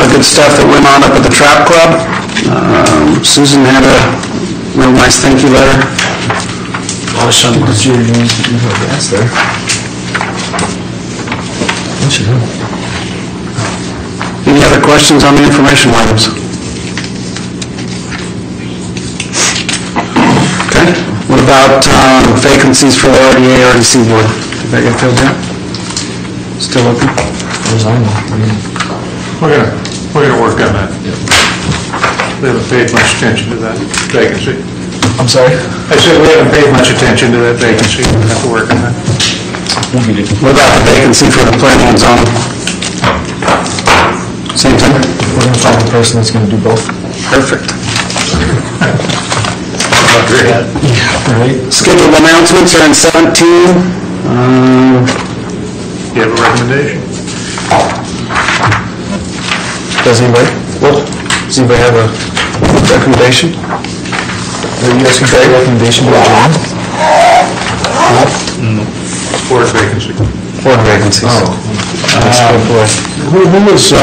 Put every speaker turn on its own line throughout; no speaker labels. good stuff that went on up at the Trap Club. Um, Susan had a real nice thank you letter. Any other questions on the information items? Okay, what about um, vacancies for the RDA, RDC board? Did that get filled out? Still open?
We're gonna, we're gonna work on that. We haven't paid much attention to that vacancy.
I'm sorry?
I said we haven't paid much attention to that vacancy, we have to work on that.
What about the vacancy for the planning and zoning? Same thing?
We're gonna find the person that's gonna do both.
Perfect.
All right.
Scheduled announcements are in 17. Um,
Do you have a recommendation?
Does anybody, well, does anybody have a recommendation? Are you asking for a recommendation to adjourn?
Board vacancy.
Board vacancies. Oh.
Who who was uh,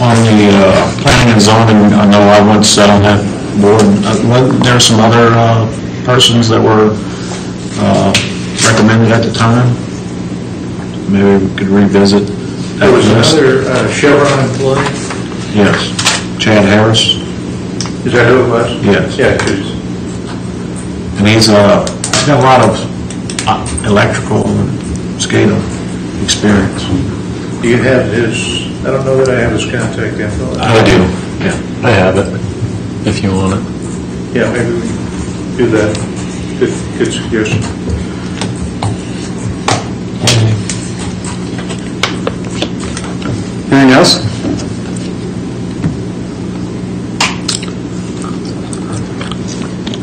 on the uh, planning and zoning, I know I once sat on that board, Uh, wasn't there some other uh, persons that were uh, recommended at the time? Maybe we could revisit that
There was
list.
another uh, Chevron employee,
Yes, Chad Harris,
is that who it was?
Yes.
Yeah, 'cause
and he's, uh, he's got a lot of uh, electrical and SCADA experience.
do you have his, I don't know that I have his contact info.
do. Yeah.
I have it, if you want it.
Yeah, maybe we can do that. Good, good suggestion.
Anything else?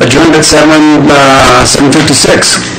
Adjourned at 7, uh, 7:56.